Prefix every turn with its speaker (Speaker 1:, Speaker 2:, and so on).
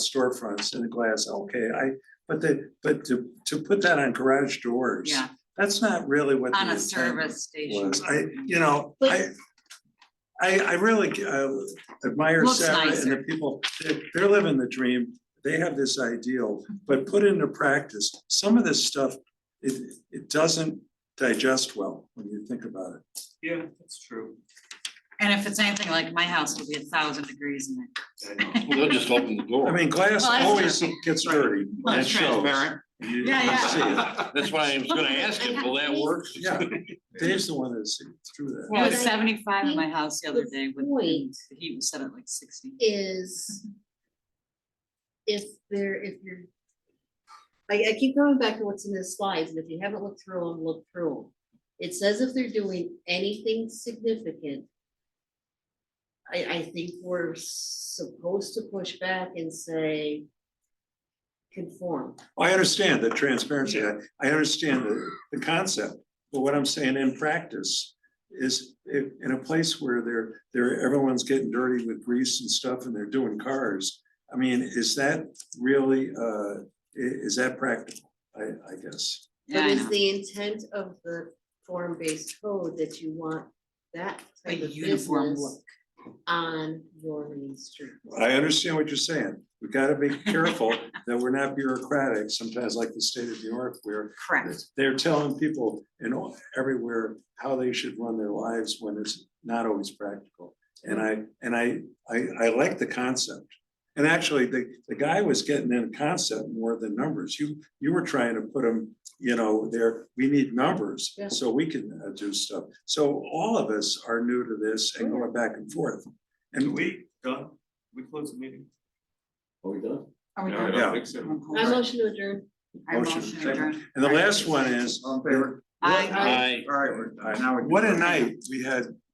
Speaker 1: storefronts in a glass, okay, I, but the, but to, to put that on garage doors.
Speaker 2: Yeah,
Speaker 1: That's not really what. the
Speaker 2: on a
Speaker 1: intent
Speaker 2: service station.
Speaker 1: Was, I, you know, I, I, I really uh, admire
Speaker 2: Looks
Speaker 1: Sarah and the
Speaker 2: nicer.
Speaker 1: people, they're, they're living the dream. They have this ideal, but put into practice, some of this stuff, it, it doesn't digest well when you think about it.
Speaker 3: Yeah, that's true.
Speaker 2: And if it's anything like my house, it'll be a thousand degrees in it.
Speaker 3: I know.
Speaker 4: They'll just open the
Speaker 1: I
Speaker 4: door.
Speaker 1: mean, glass
Speaker 2: Well, that's
Speaker 1: always gets dirty.
Speaker 2: Well,
Speaker 4: That
Speaker 2: it's
Speaker 4: shows.
Speaker 2: transparent.
Speaker 1: You- you
Speaker 2: Yeah, yeah.
Speaker 1: see it.
Speaker 4: That's why I was gonna ask if will that work?
Speaker 1: Yeah, Dave's the one that's through that.
Speaker 2: It was
Speaker 5: But I
Speaker 2: seventy-five in my
Speaker 5: think
Speaker 2: house the other
Speaker 5: the
Speaker 2: day with,
Speaker 5: point-
Speaker 2: the heat was set at like sixty.
Speaker 5: is if there, if you're, I, I keep going back to what's in the slides, and if you haven't looked through them, look through them. It says if they're doing anything significant, I, I think we're supposed to push back and say conform.
Speaker 1: I understand the transparency, I, I understand the, the concept, but what I'm saying in practice is in, in a place where they're, they're, everyone's getting dirty with grease and stuff and they're doing cars. I mean, is that really, uh, i- is that practical? I, I guess.
Speaker 2: Yeah,
Speaker 5: But
Speaker 2: I
Speaker 5: is
Speaker 2: know.
Speaker 5: the intent of the form-based code that you want that
Speaker 2: A
Speaker 5: type of
Speaker 2: uniform
Speaker 5: business
Speaker 2: look.
Speaker 5: on your main street?
Speaker 1: I understand what you're saying. We gotta be careful that we're not bureaucratic, sometimes like the state of New York where
Speaker 2: Correct.
Speaker 1: They're telling people in all, everywhere how they should run their lives when it's not always practical. And I, and I, I, I like the concept. And actually, the, the guy was getting in concept more than numbers. You, you were trying to put them, you know, there, we need numbers
Speaker 5: Yeah.
Speaker 1: so we can uh, do stuff. So all of us are new to this and going back and forth. And we,
Speaker 3: We done? We closed the meeting?
Speaker 2: Are we
Speaker 3: No, I
Speaker 2: done?
Speaker 1: Yeah.
Speaker 3: don't think so.
Speaker 2: I'm cool.
Speaker 5: I motion to adjourn.
Speaker 2: I
Speaker 1: Motion.
Speaker 2: motion adjourned.
Speaker 1: and the last one is,
Speaker 6: All in favor?
Speaker 2: I-
Speaker 1: what
Speaker 4: I,
Speaker 6: All right, we're, now we.
Speaker 1: a night we had